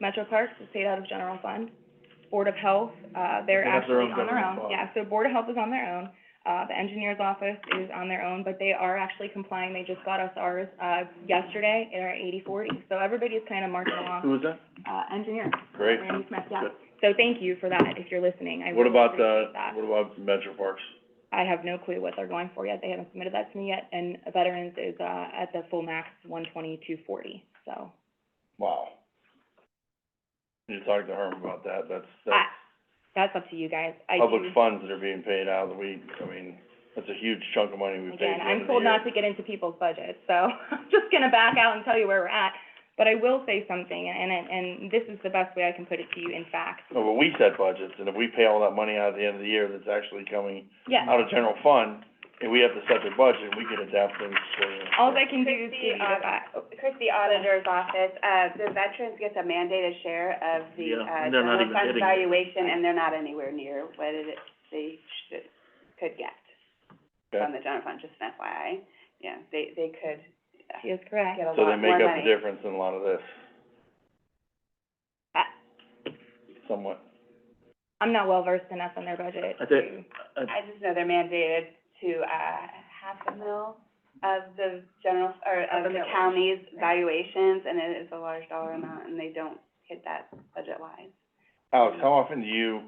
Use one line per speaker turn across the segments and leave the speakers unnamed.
Metro Parks is paid out of general fund. Board of Health, uh, they're
They have their
actually
own
on their
government
own.
body.
Yeah, so Board of Health is on their own. Uh, the engineer's office is on their own, but they are actually complying. They just got us ours, uh, yesterday, they're at eighty forty. So everybody is kind of marching along.
Who was that?
Uh, engineer,
Great.
Randy Smith, yeah.
Good.
So thank you for that, if you're listening. I
What
really
about,
appreciate
uh,
that.
what about Metro Parks?
I have no clue what they're going for yet. They haven't submitted that to me yet. And Veterans is, uh, at the full max, one twenty-two forty, so.
Wow. You talk to Herm about that, that's,
I,
that's
that's up to you guys. I do,
public funds that are being paid out, that we, I mean, that's a huge chunk of money we
again,
paid at the end
I'm
of the
told not to
year.
get into people's budgets, so I'm just gonna back out and tell you where we're at. But I will say something, and, and, and this is the best way I can put it to you in fact.
No, but we set budgets, and if we pay all that money out at the end of the year that's actually coming
Yeah.
out of general fund, and we have to set the budget, we can adapt things accordingly.
All I can do is uh, oh, give you
Christie,
the
um,
fact.
Christie Auditor's Office, uh, the veterans gets a mandated share of the,
Yeah,
uh,
and they're not
general
even
fund
getting it.
valuation, and they're not anywhere near what it, they should, could get from
Okay?
the general fund, just an FYI. Yeah, they, they could
She is correct.
get a lot
So they
more money.
make up the difference in a lot of this.
I-
Somewhat.
I'm not well versed enough on their budget
I think-
to,
I just know they're mandated to, uh, half a mil of the general, or
Of the
of the
millage,
county's valuations, and it is a large dollar amount, and they don't hit that budget-wise.
Alex, how often do you,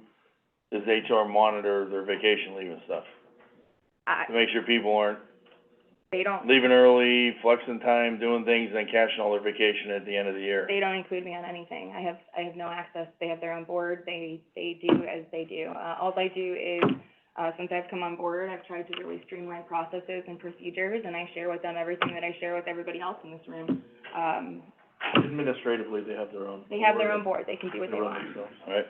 does HR monitor their vacation leave and stuff?
I,
To make sure people aren't
they don't,
leaving early, flexing time, doing things, and then cashing all their vacation at the end of the year.
they don't include me on anything. I have, I have no access. They have their own board. They, they do as they do. Uh, all I do is, uh, since I've come on board, I've tried to really streamline processes and procedures, and I share with them everything that I share with everybody else in this room. Um,
Administratively, they have their own.
they have their own board. They can do what they want.
Right,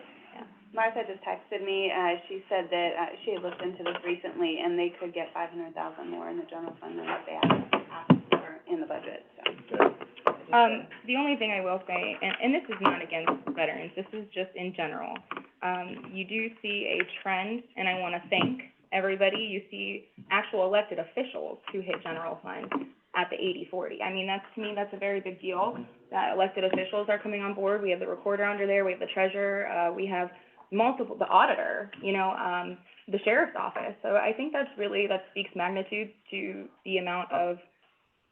Martha just texted me, uh, she said that, uh, she had looked into this recently, and they could get five hundred thousand more in the general fund than what they asked, asked for in the budget, so.
okay.
Um, the only thing I will say, and, and this is not against veterans, this is just in general. Um, you do see a trend, and I wanna thank everybody, you see actual elected officials who hit general fund at the eighty forty. I mean, that's, to me, that's a very big deal, that elected officials are coming on board, we have the recorder under there, we have the treasurer, uh, we have multiple, the auditor, you know, um, the sheriff's office. So I think that's really, that speaks magnitude to the amount of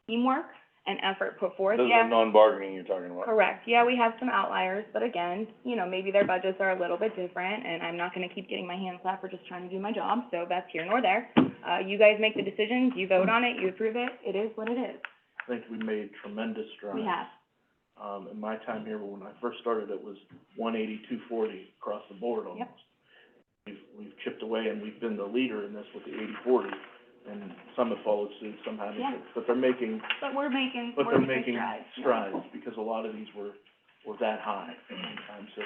teamwork and effort put forth.
This is
Yeah,
a non-bargaining you're talking about.
Correct, yeah, we have some outliers, but again, you know, maybe their budgets are a little bit different, and I'm not gonna keep getting my hand slapped for just trying to do my job, so that's here nor there. Uh, you guys make the decisions, you vote on it, you approve it, it is what it is,
I think we made tremendous strides.
we have.
Um, in my time here, when I first started, it was one eighty, two forty across the board almost. We've, we've chipped away and we've been the leader in this with the eighty, forty, and some have followed suit, some haven't.
Yeah.
But they're making,
But we're making,
but
we're
they're
making
making
strides. yeah.
strides, because a lot of these were, were that high at one time, so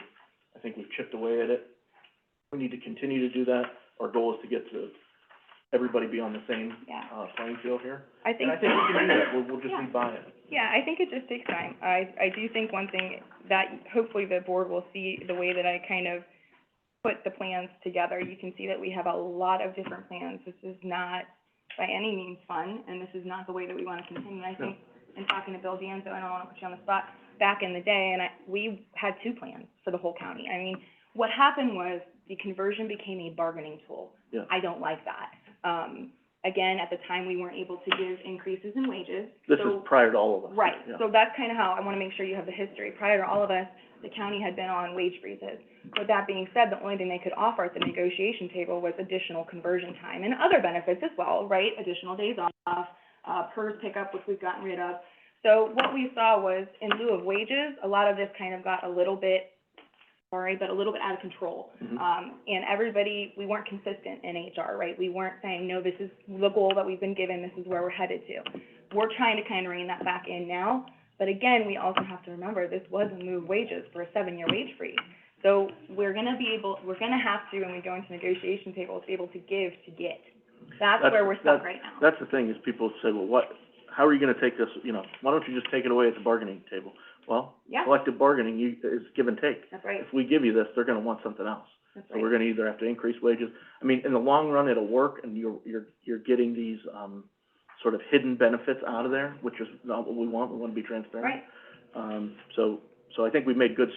I think we've chipped away at it. We need to continue to do that. Our goal is to get to, everybody be on the same,
Yeah,
uh, playing field here.
I think.
And I think we can do that. We'll, we'll just
Yeah.
be buy-in.
Yeah, I think it just takes time. I, I do think one thing that hopefully the board will see the way that I kind of put the plans together, you can see that we have a lot of different plans. This is not by any means fun, and this is not the way that we want to continue. I think, in talking to Bill Danzo, and I don't want to put you on the spot, back in the day, and I, we had two plans for the whole county. I mean, what happened was the conversion became a bargaining tool.
Yeah.
I don't like that. Um, again, at the time, we weren't able to give increases in wages,
This
so-
is prior to all of us.
Right,
Yeah.
so that's kind of how, I want to make sure you have the history. Prior to all of us, the county had been on wage freezes. With that being said, the only thing they could offer at the negotiation table was additional conversion time and other benefits as well, right? Additional days off, uh, PERS pickup, which we've gotten rid of. So what we saw was, in lieu of wages, a lot of this kind of got a little bit, sorry, but a little bit out of control.
Mhm.
Um, and everybody, we weren't consistent in HR, right? We weren't saying, no, this is the goal that we've been given, this is where we're headed to. We're trying to kind of rein that back in now, but again, we also have to remember, this was a move wages for a seven-year wage freeze. So we're gonna be able, we're gonna have to, when we go into negotiation tables, be able to give to get. That's
That's-
where we're stuck
that's-
right now.
That's the thing, is people say, well, what, how are you gonna take this, you know, why don't you just take it away at the bargaining table? Well,
Yeah,
collective bargaining, you, is give and take.
that's right,
If we give you this, they're gonna want something else.
that's
So we're
right.
gonna either have to increase wages, I mean, in the long run, it'll work, and you're, you're, you're getting these, um, sort of hidden benefits out of there, which is not what we want, we wanna be transparent.
Right.
Um, so, so I think we've made good